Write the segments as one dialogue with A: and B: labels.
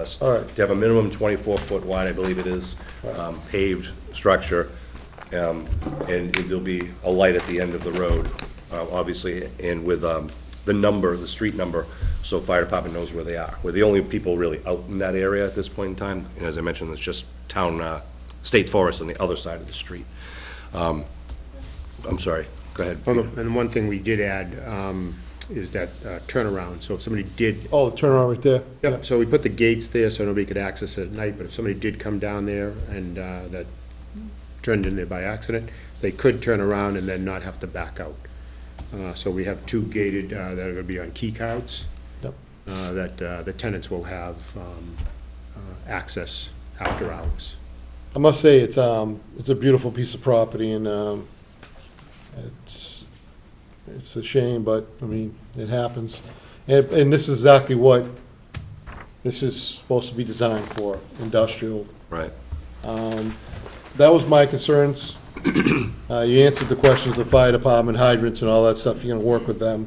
A: us.
B: All right.
A: To have a minimum 24-foot wide, I believe it is, um, paved structure, um, and it- there'll be a light at the end of the road, uh, obviously, and with um, the number, the street number, so fire department knows where they are. We're the only people really out in that area at this point in time, and as I mentioned, it's just town, uh, state forest on the other side of the street. Um, I'm sorry, go ahead.
C: Well,
A: Peter.
C: the- And one thing we did add um, is that uh, turnaround, so if somebody did,
B: Oh, the turnaround right there?
C: Yep, so we put the gates there so nobody could access it at night, but if somebody did come down there and uh, that turned in there by accident, they could turn around and then not have to back out. Uh, So we have two gated uh, that are gonna be on key cards
B: Yep.
C: uh, that uh, the tenants will have um, uh, access after hours.
B: I must say, it's, um, it's a beautiful piece of property and, um, it's, it's a shame, but, I mean, it happens. And, and this is exactly what this is supposed to be designed for, industrial.
A: Right.
B: That was my concerns. Uh, you answered the questions, the fire department, hydrants and all that stuff, you're gonna work with them.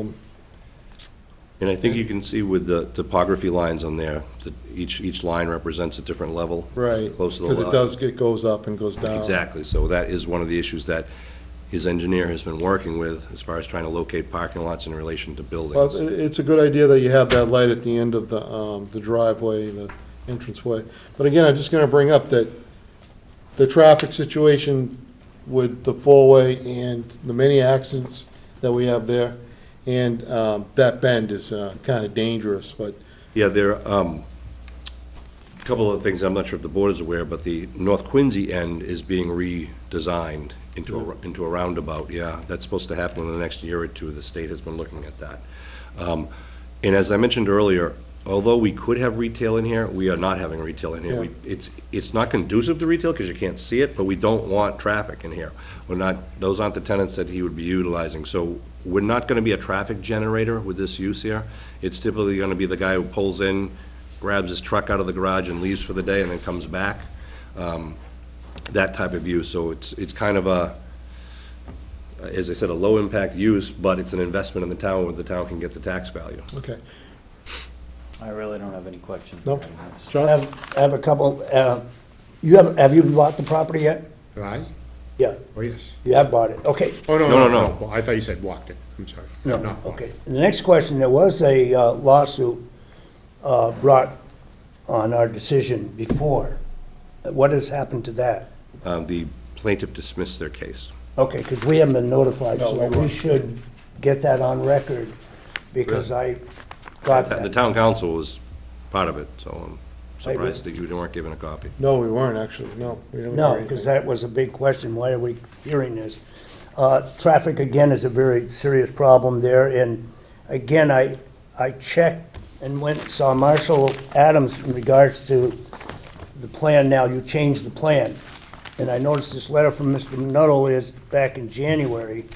A: And I think you can see with the topography lines on there, that each, each line represents a different level.
B: Right.
A: Close to the
B: Because
A: lot.
B: it does, uh, it goes up and goes down.
A: Exactly, so that is one of the issues that his engineer has been working with, as far as trying to locate parking lots in relation to
B: Well,
A: buildings.
B: it- it's a good idea that you have that light at the end of the, um, the driveway, the entranceway. But again, I'm just gonna bring up that the traffic situation with the four-way and the many accidents that we have there, and, um, that bend is, uh, kinda dangerous, but,
A: Yeah, there, um, a couple of things, I'm not sure if the board is aware, but the North Quincy end is being redesigned into a, into a roundabout, yeah. That's supposed to happen in the next year or two, the state has been looking at that. Um, And as I mentioned earlier, although we could have retail in here, we are not having retail in here. We- It's, it's not conducive to retail because you can't see it, but we don't want traffic in here. We're not, those aren't the tenants that he would be utilizing. So we're not going to be a traffic generator with this use here. It's typically going to be the guy who pulls in, grabs his truck out of the garage and leaves for the day and then comes back. Um, That type of use. So it's, it's kind of a, as I said, a low-impact use, but it's an investment in the town where the town can get the tax value.
B: okay.
D: I really don't have any questions.
B: No?
D: regarding this.
E: I
B: John?
E: have, I have a couple, uh, you have, have you bought the property yet?
C: Aye?
E: Yeah,
C: Oh, yes.
E: you have bought it, okay.
C: Oh, no,
A: No, no,
C: no,
A: no.
C: no. Well, I thought you said walked it. I'm sorry. Not walked.
E: Okay, the next question, there was a uh, lawsuit uh, brought on our decision before. What has happened to that?
A: Um, The plaintiff dismissed their case.
E: Okay, because we haven't been notified,
B: No, we
E: so we
B: weren't.
E: should get that on record, because I got
A: The
E: that.
A: town council was part of it, so I'm surprised that you weren't given a copy.
B: No, we weren't, actually, no. we haven't
E: No,
B: heard
E: because
B: anything.
E: that was a big question, why are we hearing this? Uh, Traffic, again, is a very serious problem there, and again, I, I checked and went, and saw Marshall Adams in regards to the plan now, you changed the plan. And I noticed this letter from Mr. Nuttall is back in January,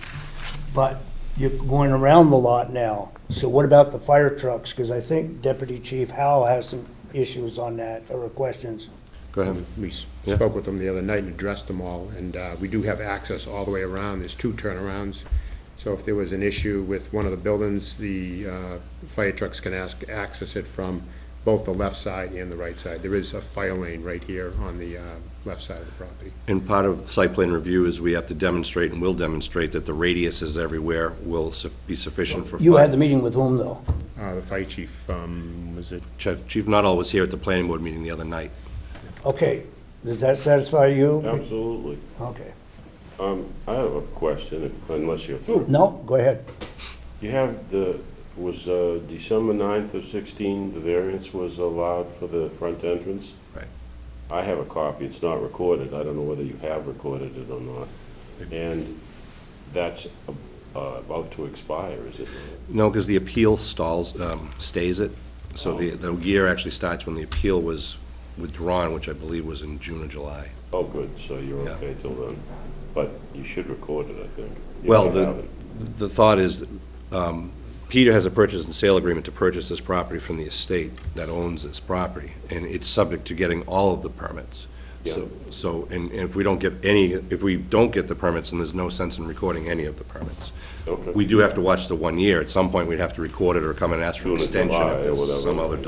E: but you're going around the lot now. So what about the fire trucks? Because I think Deputy Chief Howell has some issues on that, or questions.
A: Go ahead.
C: Um, We s-
A: Yeah.
C: spoke with them the other night and addressed them all, and uh, we do have access all the way around. There's two turnarounds. So if there was an issue with one of the buildings, the uh, fire trucks can ask, access it from both the left side and the right side. There is a fire lane right here on the uh, left side of the property.
A: And part of site plan review is we have to demonstrate and will demonstrate that the radiuses everywhere will suf- be sufficient for.
E: You
A: fire-
E: had the meeting with whom, though?
C: Uh, The fire chief, um, was it,
A: Chief Chief Nuttall was here at the planning board meeting the other night.
E: Okay, does that satisfy you?
F: Absolutely.
E: Okay.
F: Um, I have a question, if- unless you're through.
E: No, go ahead.
F: You have the, was uh, December 9th of 16, the variance was allowed for the front entrance?
A: Right.
F: I have a copy, it's not recorded, I don't know whether you have recorded it or not. And that's uh, about to expire, is it?
A: No, because the appeal stalls, um, stays it. So the, the year actually starts when the appeal was withdrawn, which I believe was in June or July.
F: Oh, good, so you're
A: Yeah.
F: okay till then. But you should record it, I think. You
A: Well,
F: don't have
A: the,
F: it.
A: the thought is, um, Peter has a purchase and sale agreement to purchase this property from the estate that owns this property, and it's subject to getting all of the permits. So, so, and and if we don't get any, if we don't get the permits, then there's no sense in recording any of the permits.
F: Okay.
A: We do have to watch the one year. At some point, we'd have to record it or come and ask for an
F: Do it in
A: extension
F: July
A: if
F: or
A: there's
F: whatever.
A: some other delay.